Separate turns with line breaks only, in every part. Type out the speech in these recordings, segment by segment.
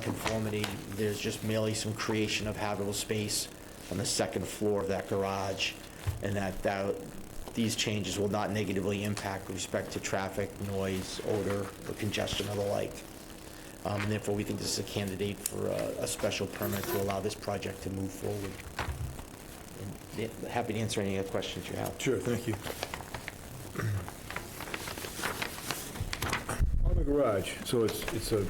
nonconformity. There's just merely some creation of habitable space on the second floor of that garage, and that, that, these changes will not negatively impact with respect to traffic, noise, odor, or congestion, or the like. Um, And therefore, we think this is a candidate for a, a special permit to allow this project to move forward. And, yeah, Happy to answer any other questions you have.
Sure, thank you. On the garage, so it's, it's a,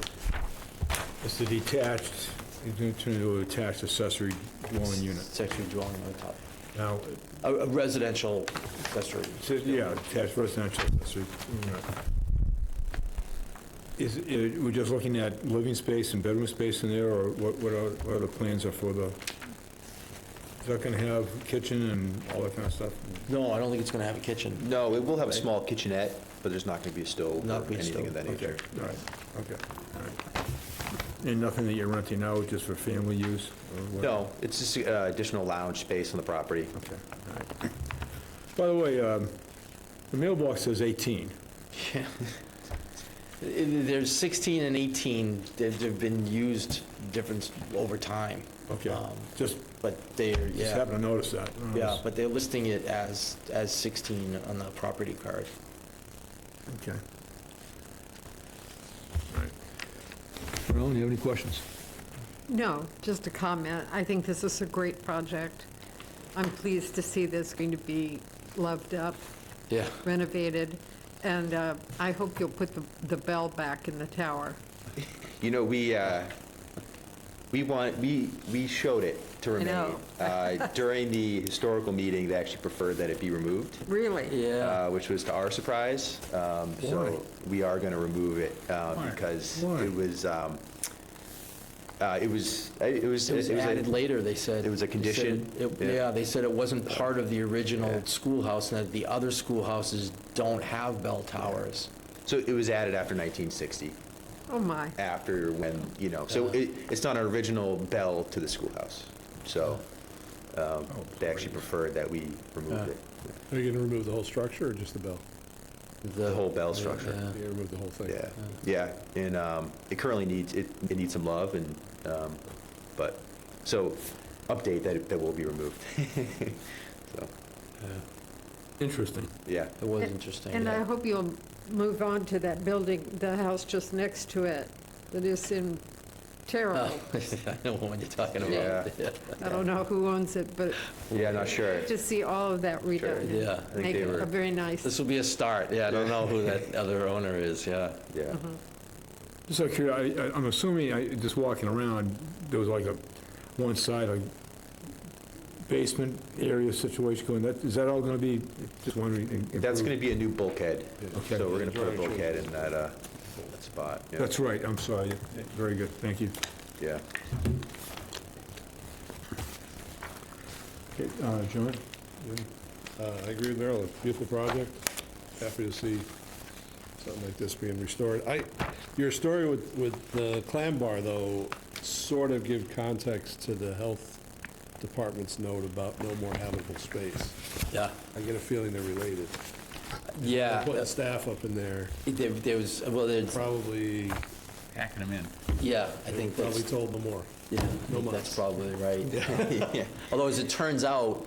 it's a detached, it's going to turn into a detached accessory dwelling unit.
Accessory dwelling on the top.
Now,
A a residential accessory.
it says, yeah, detached residential accessory unit. Is, it- uh, we're just looking at living space and bedroom space in there, or what, what are, what are the plans are for the, is that going to have kitchen and all that kind of stuff?
No, I don't think it's going to have a kitchen.
No, it will have a small kitchenette, but there's not going to be a stove
Not
or
be a
anything
stove,
of that
Okay,
nature.
all right, okay, all right. And nothing that you're renting out, just for family use? or what?
No, it's just uh, additional lounge space on the property.
Okay, all right. By the way, um, the mailbox says 18.
There's 16 and 18 that have been used different over time.
Okay,
Um,
just,
But they're,
just
yeah,
happened to notice that. Oh,
yeah, but they're listing it as, as 16 on the property card.
Okay. All right. Ron, you have any questions?
No, just a comment. I think this is a great project. I'm pleased to see this going to be loved up,
Yeah.
renovated, and uh, I hope you'll put the the bell back in the tower.
You know, we, uh, we want, we, we showed it to remain.
know.
Uh, During the historical meeting, they actually preferred that it be removed,
Really?
uh, which was to our surprise. Um, So we are going to remove it uh,
Why?
because
Why?
it was, um, uh, it was, it was.
It was
a-
added later, they said.
It was a
They said
condition?
it-
Yeah.
Yeah, they said it wasn't part of the original
Yeah.
schoolhouse, and that the other schoolhouses don't have bell towers.
So it was added after 1960.
Oh, my.
after when, you know, so it, it's not an original bell to the schoolhouse. So um, they actually preferred that we removed
Yeah.
it,
Are you going to remove the whole structure or just the bell?
the whole bell structure.
Yeah.
You're going to remove the whole thing?
uh.
Yeah, yeah, and um, it currently needs, it, it needs some love and, um, but, so update that, it- that will be removed. So,
Interesting.
yeah,
It was interesting.
And I
yeah.
hope you'll move on to that building, the house just next to it, that is in
Oh,
terrible.
I know what you're talking about.
Yeah.
I don't know who owns it, but
yeah, not sure.
to see all of that redone.
Yeah. I
think
Make
they
it
were-
a very nice,
This will be a start, yeah, I don't know who that other owner is, yeah.
Yeah,
Just out of curiosity, I- I- I'm assuming, I- just walking around, there was like a, one side, like basement area situation going, that, is that all going to be, just wondering? in-
that's going to be a new bulkhead.
Okay.
So we're going to put a bulkhead in that, uh, that spot. Yeah.
That's right, I'm sorry. Very good, thank you.
Yeah.
Okay, uh, John?
Uh, I agree with Marilyn, beautiful project, happy to see something like this being restored. I, your story with, with the clam bar, though, sort of give context to the health department's note about no more habitable space.
Yeah,
I get a feeling they're related.
Uh, yeah.
Putting staff up in there,
There, there was, well, there's,
probably,
packing them in.
yeah, I think
probably
that's,
told them more.
yeah, I think that's probably right. Although, as it turns out,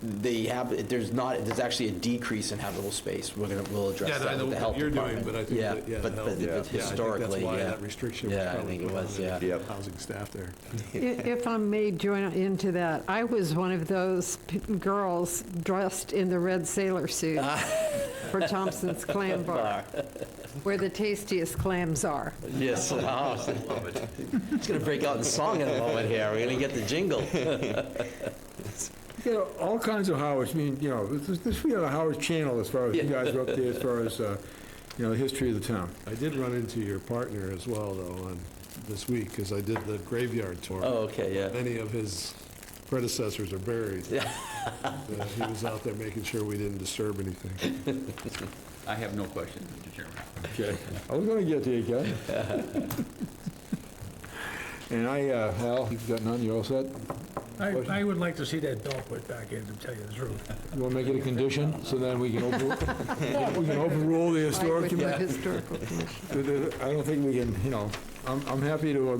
they have, there's not, there's actually a decrease in habitable space, we're gonna, we'll address
Yeah, I
that
know
with the
what
health
you're doing,
department.
but I think
Yeah,
that- yeah,
but-
the
but
health- yeah, I
but
think that's
historically, yeah.
why that restriction was
Yeah, I
probably
think it
put on
was,
it.
yeah.
Yep.
housing staff there.
I- if I may join into that, I was one of those p- girls dressed in the red sailor suit for Thompson's Clam Bar, where the tastiest clams are.
Yes. Oh. It's gonna break out in song in a moment here, we're gonna get the jingle.
Yeah, all kinds of Howard's, I mean, you know, this, this, we had a Howard Channel as far as you guys were up there, as far as, uh, you know, the history of the town.
I did run into your partner as well, though, on this week, because I did the graveyard tour.
Oh, okay, yeah.
Many of his predecessors are buried.
Yeah.
Uh, He was out there making sure we didn't disturb anything.
I have no questions, Mr. Chairman.
Okay. I was gonna get to you, Ken. And I, uh, Hal, you've got none, you're all set?
I, I would like to see that bell put back in, to tell you the truth.
You wanna make it a condition, so then we can overrule, we can overrule the
Like
historic
with the
committee?
historical commission.
I don't think we can, you know, I'm, I'm happy to uh,